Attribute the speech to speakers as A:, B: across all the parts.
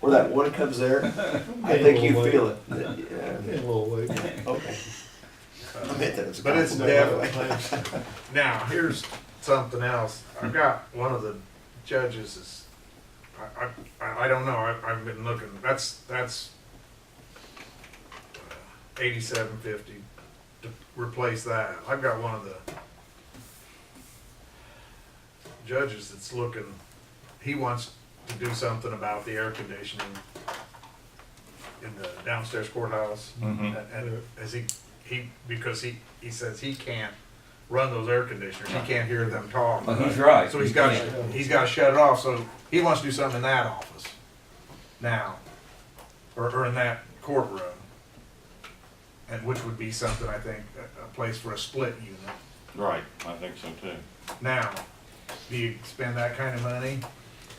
A: where that water comes there, I think you feel it. Yeah.
B: A little way.
A: Okay. I meant that it's a
C: But it's
A: compliment.
C: Now, here's something else. I've got one of the judges is, I, I- I, I don't know, I, I've been looking, that's, that's uh, eighty-seven fifty to replace that. I've got one of the judges that's looking, he wants to do something about the air conditioning in the downstairs courthouse.
D: Mhm.
C: And- And as he, he, because he, he says he can't run those air conditioners, he can't hear them talk.
D: Well, he's right.
C: So he's
D: You
C: got,
D: can't.
C: he's got to shut it off, so he wants to do something in that office now, or, or in that courtroom. And which would be something, I think, a, a place for a split unit.
D: Right, I think so too.
C: Now, do you spend that kind of money?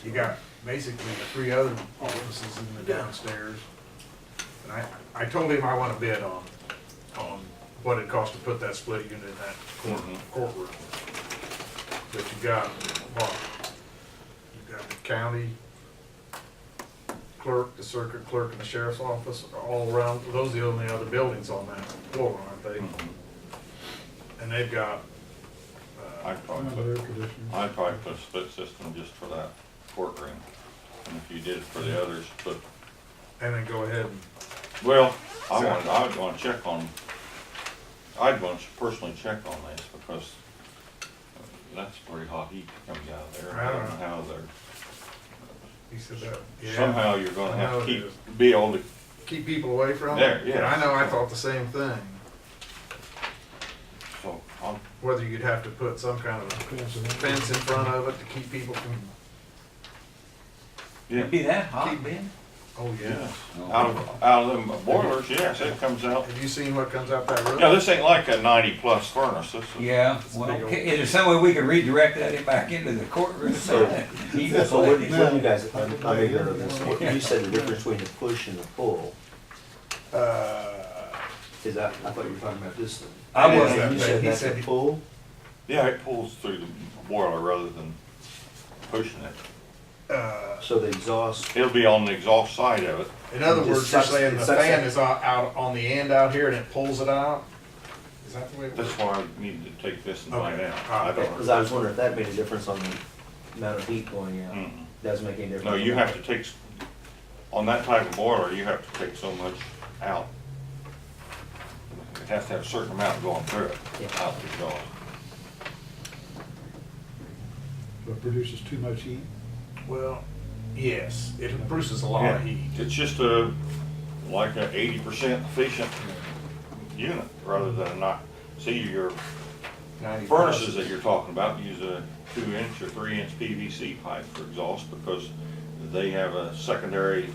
C: You got basically the three other offices in the downstairs. And I, I told him I want to bid on, on what it costs to put that split unit in that court-
D: Mhm.
C: courtroom that you got, Mark. You got the county clerk, the circuit clerk, and the sheriff's office are all around, those are the only other buildings on that floor, aren't they?
D: Mm-hmm.
C: And they've got, uh,
D: I'd probably put, I'd probably put a split system just for that courtroom. And if you did it for the others, but,
C: and then go ahead and
D: well, I wanted, I would wanna check on, I'd want to personally check on this because that's pretty hot heat coming out of there. I don't know how they're,
C: He said that. Yeah.
D: somehow you're gonna have to
C: I know it is.
D: keep, be able to,
C: Keep people away from it.
D: There, yes.
C: And I know I thought the same thing,
D: so I'll,
C: whether you'd have to put some kind of a fence in front of it to keep people from,
D: yeah.
E: Be that hot, Ben?
C: oh yeah.
D: Yes, out of, out of them boilers, yes, it comes out.
C: Have you seen what comes out that roof?
D: Yeah, this ain't like a ninety plus furnace, this is.
E: Yeah, well,
C: big old-
E: is there some way we can redirect that back into the courtroom?
A: So-
E: You
A: Yeah, So what,
E: can-
A: what do you guys, I'm I'm ignorant of this, What- you said the difference between the push and the pull,
C: Uh,
A: is that, I thought you were talking about this thing.
E: I
C: It is
E: wasn't,
C: that
A: You
C: big.
A: said
C: He
A: that's
C: said
A: a
C: he-
A: pull?
D: Yeah, it pulls through the boiler rather than pushing it.
C: uh,
A: So the exhaust,
D: It'll be on the exhaust side of it.
C: In other
A: It
C: words,
A: just
C: you're
A: sucks-
C: saying
A: it
C: the
A: sucks
C: fan
A: it.
C: is out, out on the end out here and it pulls it out? Is that the way it
D: That's
C: works?
D: why I needed to take this and find
C: Okay.
D: out. I
A: because
D: don't.
A: I was wondering if that made a difference on the amount of heat going out,
C: Mm.
D: Mm-mm.
A: doesn't make any difference.
D: No, you have to take, s- on that type of boiler, you have to take so much out. It has to have a certain amount going through it,
A: Yeah.
D: out the exhaust.
B: It produces too much heat.
C: Well, yes, it produces a lot of
D: Yeah.
C: heat.
D: It's just a, like a eighty percent efficient unit rather than not, see your
C: 90
D: Furnaces that you're talking about use a two inch or three inch PVC pipe for exhaust because they have a secondary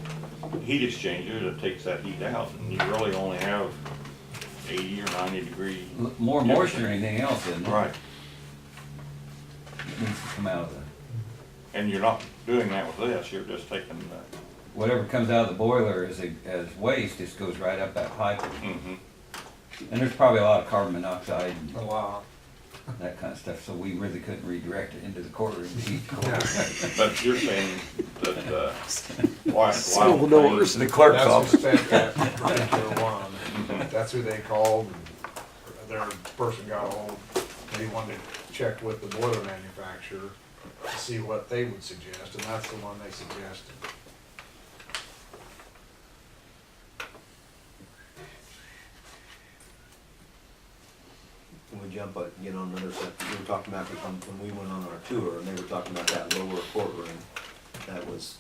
D: heat exchanger that takes that heat out and you really only have eighty or ninety degree.
E: more moisture than anything else, isn't it?
D: Right,
E: It Needs to come out of the,
D: and you're not doing that with this, you're just taking the,
E: whatever comes out of the boiler as, a- as waste, just goes right up that pipe.
D: mhm.
E: And there's probably a lot of carbon monoxide
C: A lot.
E: and that kind of stuff, so we really couldn't redirect it into the courtroom to heat the
C: Yeah.
E: courtroom.
D: But you're saying that, uh, why, why?
F: Sealed doors.
E: The clerk's
C: That's who
E: office.
C: sent that particular one. That's who they called, and their person got hold. They wanted to check with the boiler manufacturer to see what they would suggest, and that's the one they suggested.
A: Can we jump, uh, get on another set, we were talking about, when when we went on our tour, and they were talking about that lower courtroom, that was,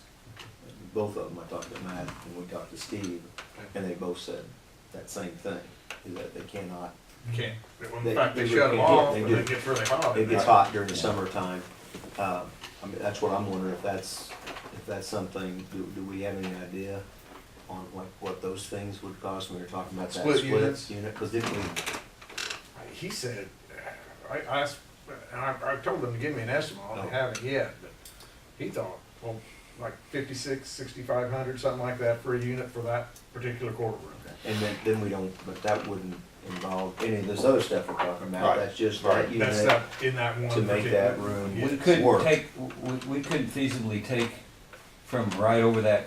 A: both of them, I talked to Matt, and we talked to Steve, and they both said that same thing, is that they cannot
C: Can't. In
A: They-
C: fact, they
A: they
C: shut
A: do.
C: them off,
A: They
C: and
A: do.
C: it gets really hot.
A: It gets hot during the summertime. Uh, I mean, that's what I'm wondering, if that's, if that's something, do, do we have any idea on what, what those things would cost? We were talking about that
C: Split
A: split
C: units?
A: unit, because didn't we,
C: He said, uh, I, I asked, and I, I told them to give me an estimate,
A: Oh.
C: and they haven't yet, but he thought, well, like fifty-six, sixty-five hundred, something like that for a unit for that particular courtroom.
A: and then, then we don't, but that wouldn't involve any of this other stuff we're talking about.
D: Right,
A: That's just
D: right.
A: that
C: That's
A: unit
C: that, in that one
A: to
C: particular.
A: make that room
E: We
A: work.
E: couldn't take, we, we couldn't feasibly take from right over that